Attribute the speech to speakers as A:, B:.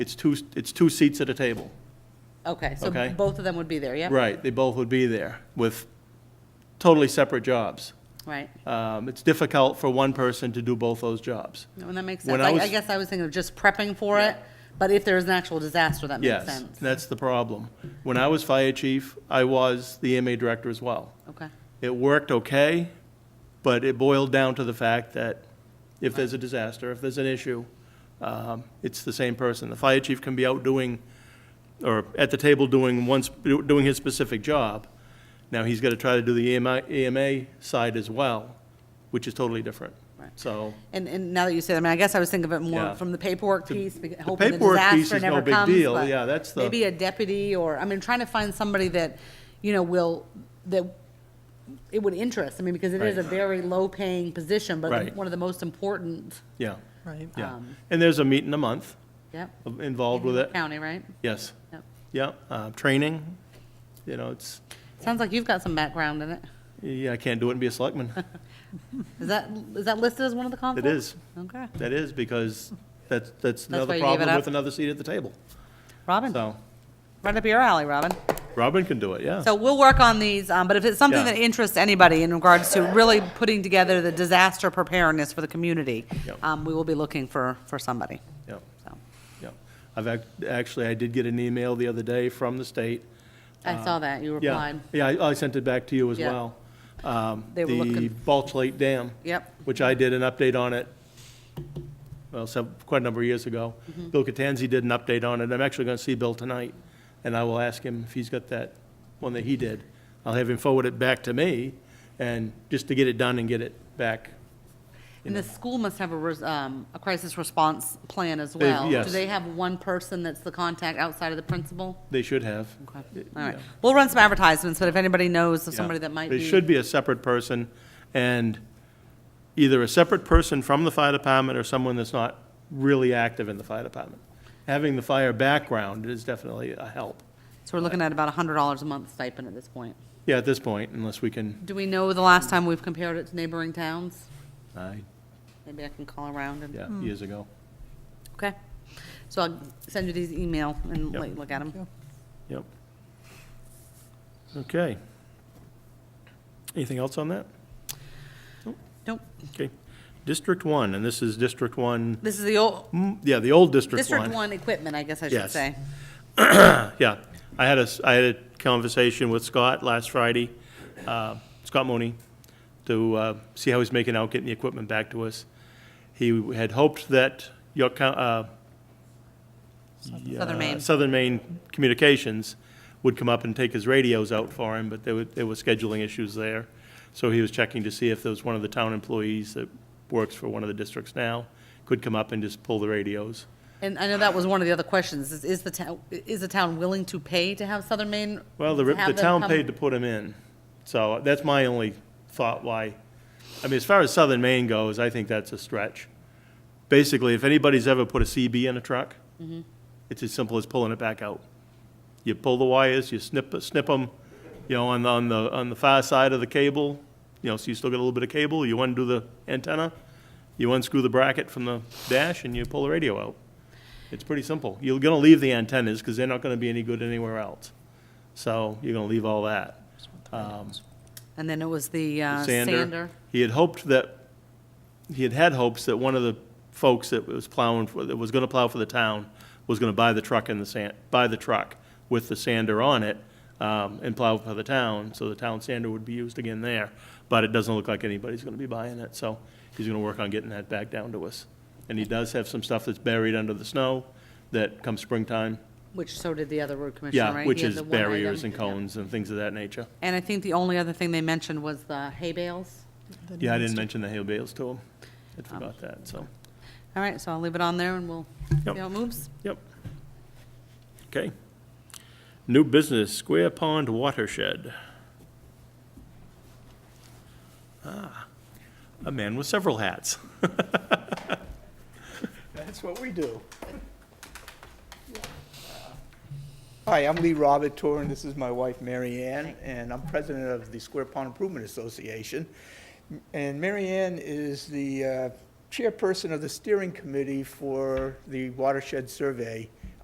A: It's two, it's two seats at a table.
B: Okay, so
A: Okay.
B: both of them would be there, yeah?
A: Right, they both would be there with totally separate jobs.
B: Right,
A: Um, It's difficult for one person to do both those jobs.
B: No, and that makes
A: When
B: sense.
A: I
B: I, I
A: was-
B: guess I was thinking of just prepping for
A: Yeah.
B: it, but if there is an actual disaster, that makes
A: Yes,
B: sense.
A: that's the problem. When I was fire chief, I was the EMA director as well.
B: Okay,
A: It worked okay, but it boiled down to the fact that if there's a disaster, if there's an issue, um, it's the same person. The fire chief can be out doing, or at the table doing one, sp- doing his specific job. Now, he's got to try to do the E EMI EMA side as well, which is totally different.
B: Right.
A: So,
B: and, and now that you say that, I mean, I guess I was thinking of it
A: Yeah.
B: more from the paperwork piece, beca-
A: the
B: hoping the
A: paperwork piece
B: disaster
A: is no
B: never
A: big
B: comes.
A: deal.
B: but
A: Yeah, that's the-
B: Maybe a deputy, or, I mean, trying to find somebody that, you know, will, that it would interest, I mean, because it is a
A: Right.
B: very low-paying position, but
A: Right.
B: one of the most important,
A: yeah,
C: Right.
A: yeah.
B: Um,
A: And there's a meeting a month
B: yep.
A: involved with it.
B: County, right?
A: Yes,
B: Yep.
A: yeah, uh, training, you know, it's,
B: Sounds like you've got some background in it.
A: yeah, I can't do it and be a selectman.
B: Is that, is that listed as one of the
A: It
B: conflicts?
A: is.
B: Okay.
A: That is, because that's, that's
B: why
A: another
B: you gave it
A: problem
B: up?
A: with another seat at the table.
B: Robin,
A: So,
B: right up your alley, Robin.
A: Robin can do it, yeah.
B: So we'll work on these, um, but if it's something
A: Yeah.
B: that interests anybody in regards to really putting together the disaster preparedness for the community,
A: Yep.
B: um, we will be looking for, for somebody,
A: Yeah,
B: so.
A: yeah. I've, act- actually, I did get an email the other day from the state.
B: I saw that, you
A: Um, Yeah,
B: replied.
A: Yeah, I I sent it back to you as
B: Yeah.
A: well. Um,
B: They were
A: The
B: looking-
A: Balch Lake Dam.
B: Yep,
A: which I did an update on it, well, some, quite a number of years ago.
B: Mm-hmm.
A: Bill Catanzi did an update on it. I'm actually going to see Bill tonight, and I will ask him if he's got that one that he did. I'll have him forward it back to me, and just to get it done and get it back.
B: and the school must have a, res- um, a crisis response plan as well. Do
A: yes.
B: they have one person that's the contact outside of the principal?
A: They should have.
B: Okay,
A: It-
B: all right.
A: yeah.
B: We'll run some advertisements, but if anybody knows of
A: Yeah.
B: somebody that might
A: But
B: be.
A: It should be a separate person, and either a separate person from the fire department or someone that's not really active in the fire department. Having the fire background is definitely a help.
B: So we're looking at about a hundred dollars a month stipend at this point.
A: Yeah, at this point, unless we can,
B: Do we know the last time we've compared it to neighboring towns?
A: I-
B: Maybe I can call around and,
A: uh, yeah, years ago.
B: okay. So I'll send you these email and
A: Yep.
B: let you look at them.
A: Yep. Okay. Anything else on that?
B: Nope,
A: Okay. District one, and this is District one,
B: this is the old,
A: mm, yeah, the old District
B: District
A: one.
B: One equipment, I guess I should
A: Yes.
B: say.
A: Yeah. I had a, s- I had a conversation with Scott last Friday, uh, Scott Mooney, to uh, see how he's making out getting the equipment back to us. He had hoped that York, Coun- uh,
B: Southern
A: uh,
B: Maine.
A: Southern Maine Communications would come up and take his radios out for him, but there were, there were scheduling issues there. So he was checking to see if there was one of the town employees that works for one of the districts now could come up and just pull the radios.
B: And I know that was one of the other questions, is, is the town, is the town willing to pay to have Southern Maine?
A: Well, the, the
B: have them
A: town
B: come-
A: paid to put him in, so that's my only thought why. I mean, as far as Southern Maine goes, I think that's a stretch. Basically, if anybody's ever put a CB in a truck,
B: Mm-hmm.
A: it's as simple as pulling it back out. You pull the wires, you snip, snip them, you know, on, the- on the, on the far side of the cable, you know, so you still got a little bit of cable, you undo the antenna, you unscrew the bracket from the dash, and you pull the radio out. It's pretty simple. You're gonna leave the antennas, because they're not gonna be any good anywhere else. So you're gonna leave all that. Um,
B: And then it was the uh,
A: Sander.
B: sander.
A: He had hoped that, he had had hopes that one of the folks that was plowing, for that was gonna plow for the town, was gonna buy the truck and the sand, buy the truck with the sander on it, um, and plow for the town, so the town sander would be used again there. But it doesn't look like anybody's gonna be buying it, so he's gonna work on getting that back down to us. And he does have some stuff that's buried under the snow that come springtime,
B: Which so did the other road commissioner, right?
A: yeah, which
B: He had
A: is
B: the one
A: barriers
B: item.
A: and cones and things of that nature.
B: And I think the only other thing they mentioned was the hay bales.
A: Yeah, I didn't mention the hay bales to him. I forgot that, so,
B: All right, so I'll leave it on there and we'll see
A: Yep.
B: how it moves.
A: yep. Okay. New business, Square Pond Watershed. Ah, a man with several hats.
D: That's what we do. Hi, I'm Lee Robert Torn. This is my wife, Mary Ann, and I'm president of the Square Pond Improvement Association. And Mary Ann is the uh, chairperson of the steering committee for the watershed survey